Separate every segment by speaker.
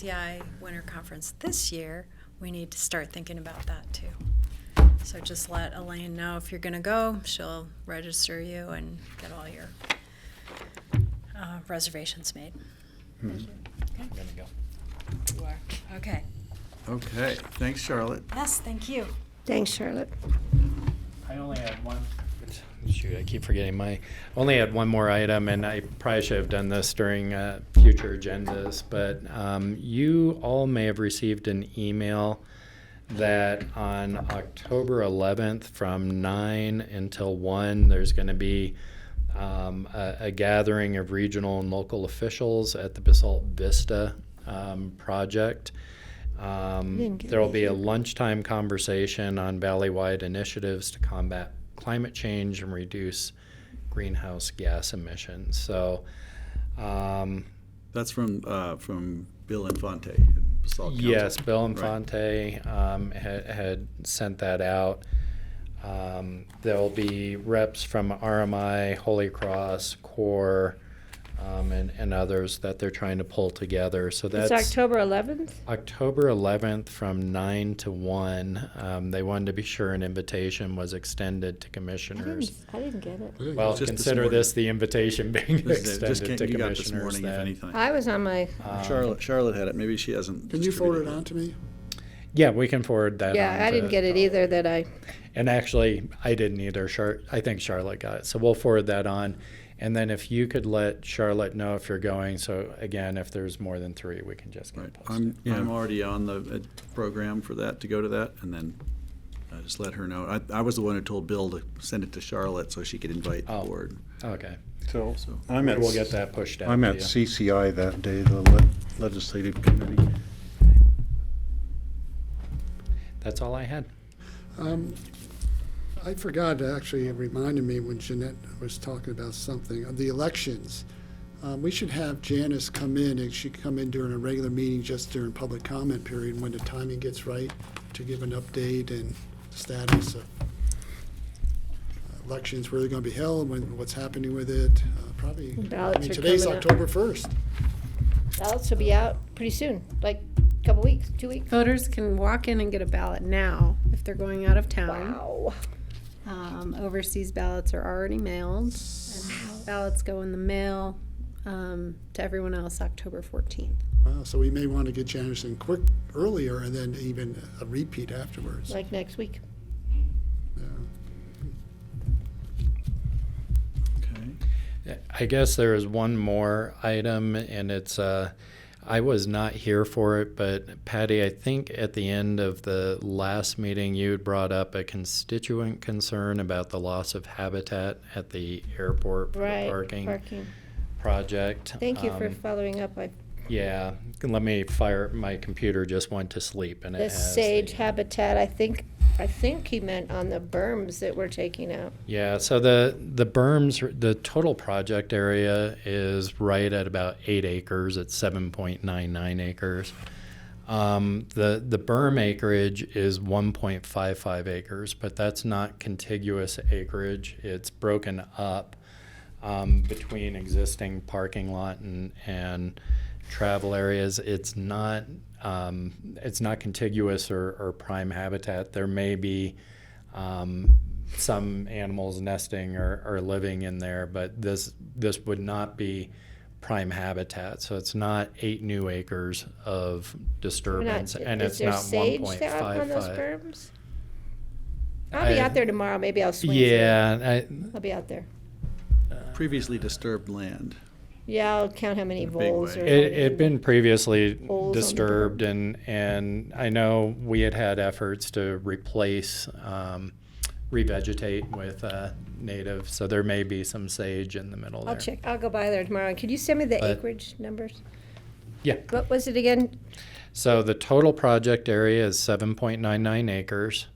Speaker 1: CI Winter Conference this year, we need to start thinking about that too. So just let Elaine know if you're going to go. She'll register you and get all your uh, reservations made.
Speaker 2: I'm gonna go.
Speaker 1: You are. Okay.
Speaker 3: Okay, thanks, Charlotte.
Speaker 1: Yes, thank you.
Speaker 4: Thanks, Charlotte.
Speaker 2: I only had one. Shoot, I keep forgetting my, only had one more item, and I probably should have done this during uh, future agendas, but um, you all may have received an email that on October 11th from 9 until 1, there's going to be um, a, a gathering of regional and local officials at the Basalt Vista um, project. Um,
Speaker 4: Didn't get
Speaker 2: there will
Speaker 4: me.
Speaker 2: be a lunchtime conversation on valley-wide initiatives to combat climate change and reduce greenhouse gas emissions. So, um,
Speaker 3: That's from, uh, from Bill Infante. Basalt Council.
Speaker 2: yes, Bill
Speaker 3: Right.
Speaker 2: Infante um, had, had sent that out. Um, there'll be reps from RMI, Holy Cross, CORE, um, and, and others that they're trying to pull together. So that's
Speaker 4: It's October 11th?
Speaker 2: October 11th from 9 to 1. Um, they wanted to be sure an invitation was extended to
Speaker 4: I didn't,
Speaker 2: commissioners.
Speaker 4: I didn't get it.
Speaker 3: It was
Speaker 2: Well,
Speaker 3: just this
Speaker 2: consider
Speaker 3: morning.
Speaker 2: this the invitation being
Speaker 3: This is it. Just
Speaker 2: extended
Speaker 3: can't-
Speaker 2: to
Speaker 3: you got this
Speaker 2: commissioners
Speaker 3: morning, if
Speaker 2: then.
Speaker 3: anything.
Speaker 4: I was on my,
Speaker 2: Um,
Speaker 3: Charlotte, Charlotte had it, maybe she hasn't.
Speaker 5: Can you forward it
Speaker 3: distributed
Speaker 5: on to me?
Speaker 2: Yeah, we can forward that.
Speaker 4: yeah,
Speaker 2: on
Speaker 4: I
Speaker 2: to-
Speaker 4: didn't get it either that I,
Speaker 2: And actually, I didn't either. Char- I think Charlotte got it. So we'll forward that on. And then if you could let Charlotte know if you're going. So again, if there's more than three, we can just get
Speaker 3: Right,
Speaker 2: it
Speaker 3: I'm,
Speaker 2: posted.
Speaker 3: I'm already on the uh, program for that, to go to that, and then I just let her know. I, I was the one who told Bill to send it to Charlotte so she could invite the
Speaker 2: Oh.
Speaker 3: board,
Speaker 2: Okay.
Speaker 6: So
Speaker 3: so.
Speaker 6: I'm at,
Speaker 2: We'll get that pushed out.
Speaker 6: I'm
Speaker 2: to
Speaker 6: at
Speaker 2: you.
Speaker 6: CCI that day, the le- Legislative Committee.
Speaker 2: That's all I had.
Speaker 5: Um, I forgot, actually, it reminded me when Jeanette was talking about something, of the elections. Um, We should have Janice come in, and she can come in during a regular meeting, just during public comment period, when the timing gets right, to give an update and status of uh, elections, where they're going to be held, when, what's happening with it, uh, probably.
Speaker 4: Ballots
Speaker 5: I mean,
Speaker 4: are
Speaker 5: today's
Speaker 4: coming up.
Speaker 5: October 1st.
Speaker 4: ballots will be out pretty soon, like a couple weeks, two weeks.
Speaker 7: Voters can walk in and get a ballot now if they're going out of town.
Speaker 4: Wow.
Speaker 7: Um, overseas ballots are already mailed. and Ballots go in the mail, um, to everyone else October fourteenth.
Speaker 5: Wow, So we may want to get Janice in quick, earlier, and then even a repeat afterwards.
Speaker 4: Like next week.
Speaker 5: Yeah.
Speaker 3: Okay.
Speaker 2: I guess there is one more item, and it's uh, I was not here for it, but Patty, I think at the end of the last meeting, you had brought up a constituent concern about the loss of habitat at the airport for
Speaker 4: Right.
Speaker 2: the parking project.
Speaker 4: Thank you for
Speaker 2: Um,
Speaker 4: following up. I,
Speaker 2: yeah, let me fire. My computer just went to sleep, and it
Speaker 4: the
Speaker 2: has
Speaker 4: sage
Speaker 2: the-
Speaker 4: habitat, I think, I think he meant on the berms that we're taking out.
Speaker 2: Yeah, so the the berms, the total project area is right at about eight acres. It's seven point nine nine acres. Um, the the berm acreage is one point five five acres, but that's not contiguous acreage. It's broken up um, between existing parking lot and and travel areas. It's not um, it's not contiguous or, or prime habitat. There may be um, some animals nesting or, or living in there, but this this would not be prime habitat. So it's not eight new acres of
Speaker 4: We're not-
Speaker 2: disturbance, and
Speaker 4: is
Speaker 2: it's
Speaker 4: there
Speaker 2: not one
Speaker 4: sage
Speaker 2: point
Speaker 4: there up
Speaker 2: five
Speaker 4: on those
Speaker 2: five.
Speaker 4: berms? I'll be
Speaker 2: I-
Speaker 4: out there tomorrow. Maybe I'll swing. through.
Speaker 2: Yeah,
Speaker 4: I'll be out there.
Speaker 3: Previously disturbed land.
Speaker 4: Yeah, I'll count how many
Speaker 3: In a big
Speaker 4: voles
Speaker 3: way.
Speaker 4: or.
Speaker 2: I, it had been previously
Speaker 4: Holes on the
Speaker 2: disturbed, and and I know we had had efforts to replace. Um, revegetate with uh, native so there may be some sage in the middle
Speaker 4: I'll
Speaker 2: there
Speaker 4: check, I'll go by there tomorrow. Could you send me the
Speaker 2: But-
Speaker 4: acreage numbers?
Speaker 2: Yeah.
Speaker 4: What was it again?
Speaker 2: So the total project area is seven point nine nine acres.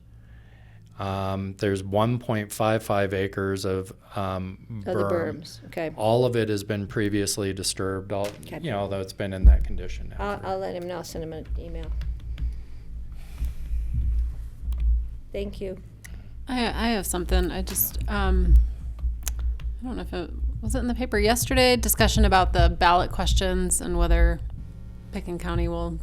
Speaker 2: Um, there's one point five five acres of um,
Speaker 4: Oh, the
Speaker 2: berm.
Speaker 4: berms, okay.
Speaker 2: All of it has been previously disturbed. All
Speaker 4: Okay.
Speaker 2: you know, although it's been in that condition now.
Speaker 4: I'll,
Speaker 2: for-
Speaker 4: I'll let him know, I'll send him an email. Thank you.
Speaker 8: I, I have something. I just, um, I don't know if it was it in the paper yesterday. Discussion about the ballot questions and whether
Speaker 7: Picken County will